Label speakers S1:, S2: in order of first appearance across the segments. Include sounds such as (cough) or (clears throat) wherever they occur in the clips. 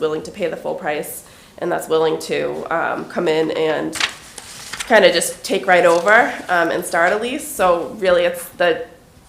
S1: willing to pay the full price and that's willing to um, come in and kind of just take right over um, and start a lease. So really, it's the,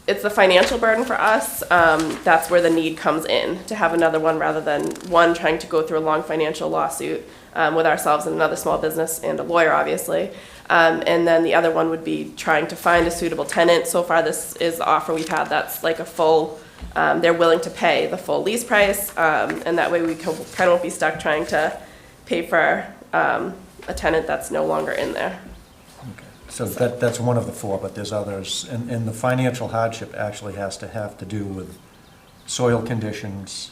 S1: it's the financial burden for us. Um, That's where the need comes in, to have another one rather than one trying to go through a long financial lawsuit um, with ourselves and another small business and a lawyer, obviously. Um, And then the other one would be trying to find a suitable tenant. So far, this is the offer we've had, that's like a full, um, they're willing to pay the full lease price. um, And that way, we kind of won't be stuck trying to pay for um, a tenant that's no longer in there.
S2: So that, that's one of the four, but there's others. And, and the financial hardship actually has to have to do with soil conditions,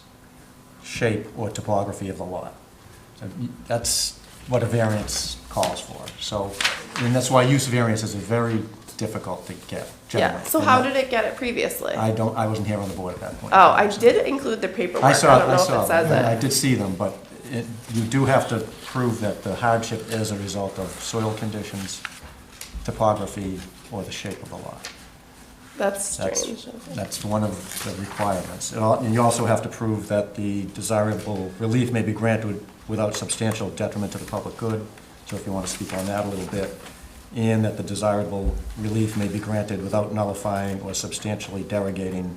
S2: shape or topography of the lot. So That's what a variance calls for. So, and that's why use variances are very difficult to get generally.
S1: Yeah, so how did it get it previously?
S2: I don't, I wasn't here on the board at that point.
S1: Oh, I did include the paperwork,
S2: I
S1: I
S2: saw,
S1: don't
S2: I
S1: know if
S2: saw,
S1: it says
S2: them, and I
S1: it.
S2: did see them, but it, you do have to prove that the hardship is a result of soil conditions, topography, or the shape of the lot.
S1: That's
S2: That's,
S1: strange. okay.
S2: that's one of the requirements. And al- And you also have to prove that the desirable relief may be granted without substantial detriment to the public good, so if you want to speak on that a little bit, and that the desirable relief may be granted without nullifying or substantially derogating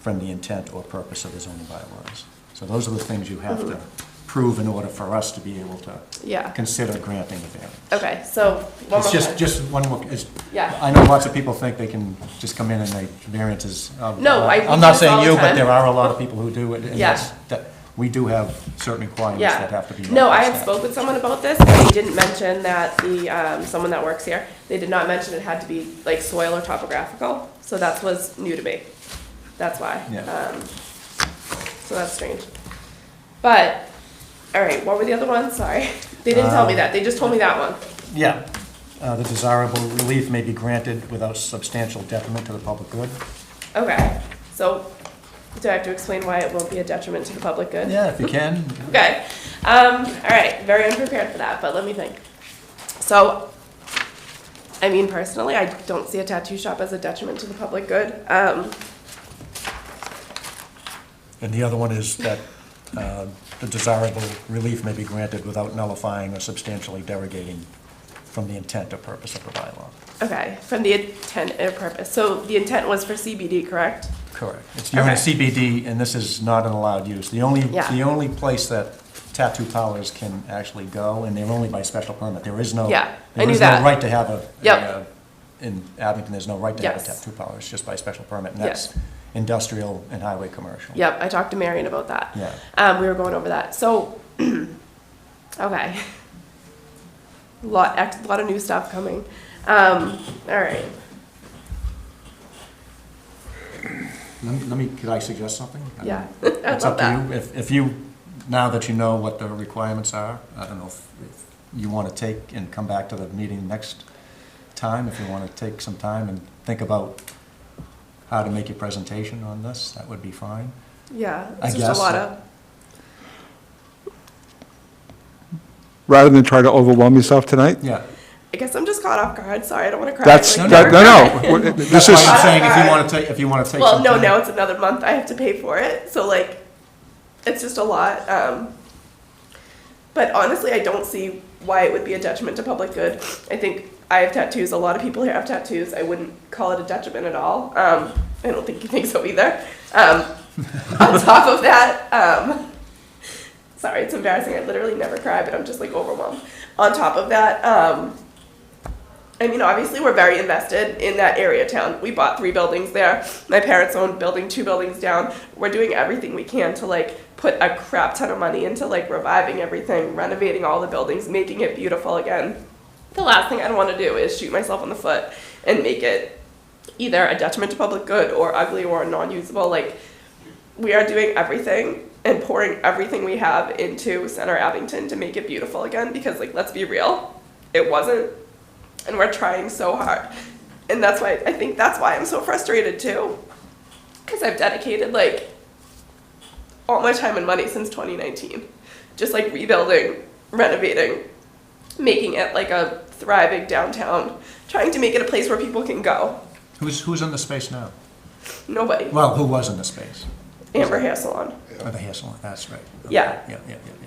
S2: from the intent or purpose of the zoning bylaws. So those are the things you have to prove in order for us to be able to
S1: Hmm. Yeah,
S2: consider granting a variance.
S1: okay, so one more
S2: It's just,
S1: time.
S2: just one more, it's,
S1: Yeah.
S2: I know lots of people think they can just come in and make variances. Um,
S1: No, I-
S2: I'm not saying
S1: all
S2: you,
S1: the
S2: but
S1: time.
S2: there are a lot of people who do it. and
S1: Yeah.
S2: that's- that- We do have certain requirements that have to be.
S1: Yeah, no, I
S2: met.
S1: had spoke with someone about this, and they didn't mention that the, um, someone that works here, they did not mention it had to be like soil or topographical, so that was new to me. That's why.
S2: Yeah.
S1: Um, So that's strange. But, all right, what were the other ones? Sorry. (laughs) They didn't tell me
S2: Um,
S1: that, they just told me that one.
S2: Yeah, Uh, the desirable relief may be granted without substantial detriment to the public good.
S1: Okay, so do I have to explain why it won't be a detriment to the public good?
S2: Yeah, if you can.
S1: Okay, um, all right, very unprepared for that, but let me think. So, I mean, personally, I don't see a tattoo shop as a detriment to the public good. Um,
S2: And the other one is that uh, the desirable relief may be granted without nullifying or substantially derogating from the intent or purpose of the bylaw.
S1: okay, from the intent and purpose. So the intent was for CBD, correct?
S2: Correct. It's, you're in a
S1: Okay.
S2: CBD, and this is not an allowed use. The only,
S1: Yeah.
S2: the only place that tattoo parlors can actually go, and they're only by special permit, there is no.
S1: Yeah, I knew
S2: There is
S1: that.
S2: no right to have a.
S1: Yep.
S2: a- In Abington, there's no right to have a
S1: Yes.
S2: tattoo parlor, it's just by special permit, and
S1: Yes.
S2: that's industrial and highway commercial.
S1: Yep, I talked to Marion about that.
S2: Yeah.
S1: Um, we were going over that. So, (clears throat) okay. Lot, a lot of new stuff coming. Um, all right.
S2: Let me- let me, could I suggest something? I
S1: Yeah, (laughs)
S2: mean,
S1: I'd
S2: It's
S1: love
S2: up to you. If, if you, now that you know what the requirements are, I don't know if if you want to take and come back to the meeting next time, if you want to take some time and think about how to make your presentation on this, that would be fine.
S1: Yeah,
S2: I
S1: it's just
S2: guess
S1: a lot
S2: so.
S1: of,
S3: rather than try to overwhelm yourself tonight?
S2: Yeah.
S1: I guess I'm just caught off guard, sorry, I don't wanna cry.
S3: That's,
S1: like,
S2: No,
S3: that-
S1: never
S3: no,
S1: cry.
S3: no, w- this
S2: That's why
S3: is,
S2: I'm saying if you want to take, if you want to take
S1: Well,
S2: some time.
S1: no, now it's another month, I have to pay for it, so like, it's just a lot, um. But honestly, I don't see why it would be a detriment to public good. I think I have tattoos, a lot of people here have tattoos, I wouldn't call it a detriment at all, um, I don't think you think so either. Um,
S2: (laughs)
S1: on top of that, um, sorry, it's embarrassing. I literally never cry, but I'm just like overwhelmed. On top of that, um, I mean, obviously, we're very invested in that area town. We bought three buildings there. My parents own building two buildings down. We're doing everything we can to like put a crap ton of money into like reviving everything, renovating all the buildings, making it beautiful again. The last thing I'd want to do is shoot myself in the foot and make it either a detriment to public good or ugly or non-usable. Like we are doing everything and pouring everything we have into Center Abington to make it beautiful again because, like, let's be real, it wasn't. And we're trying so hard. And that's why I think that's why I'm so frustrated too. Because I've dedicated, like, all my time and money since 2019, just like rebuilding, renovating, making it like a thriving downtown, trying to make it a place where people can go.
S2: Who's, who's in the space now?
S1: Nobody.
S2: Well, who was in the space?
S1: Amber Hair Salon.
S2: Or the hair salon, that's right.
S1: Yeah.
S2: Yeah, yeah, yeah.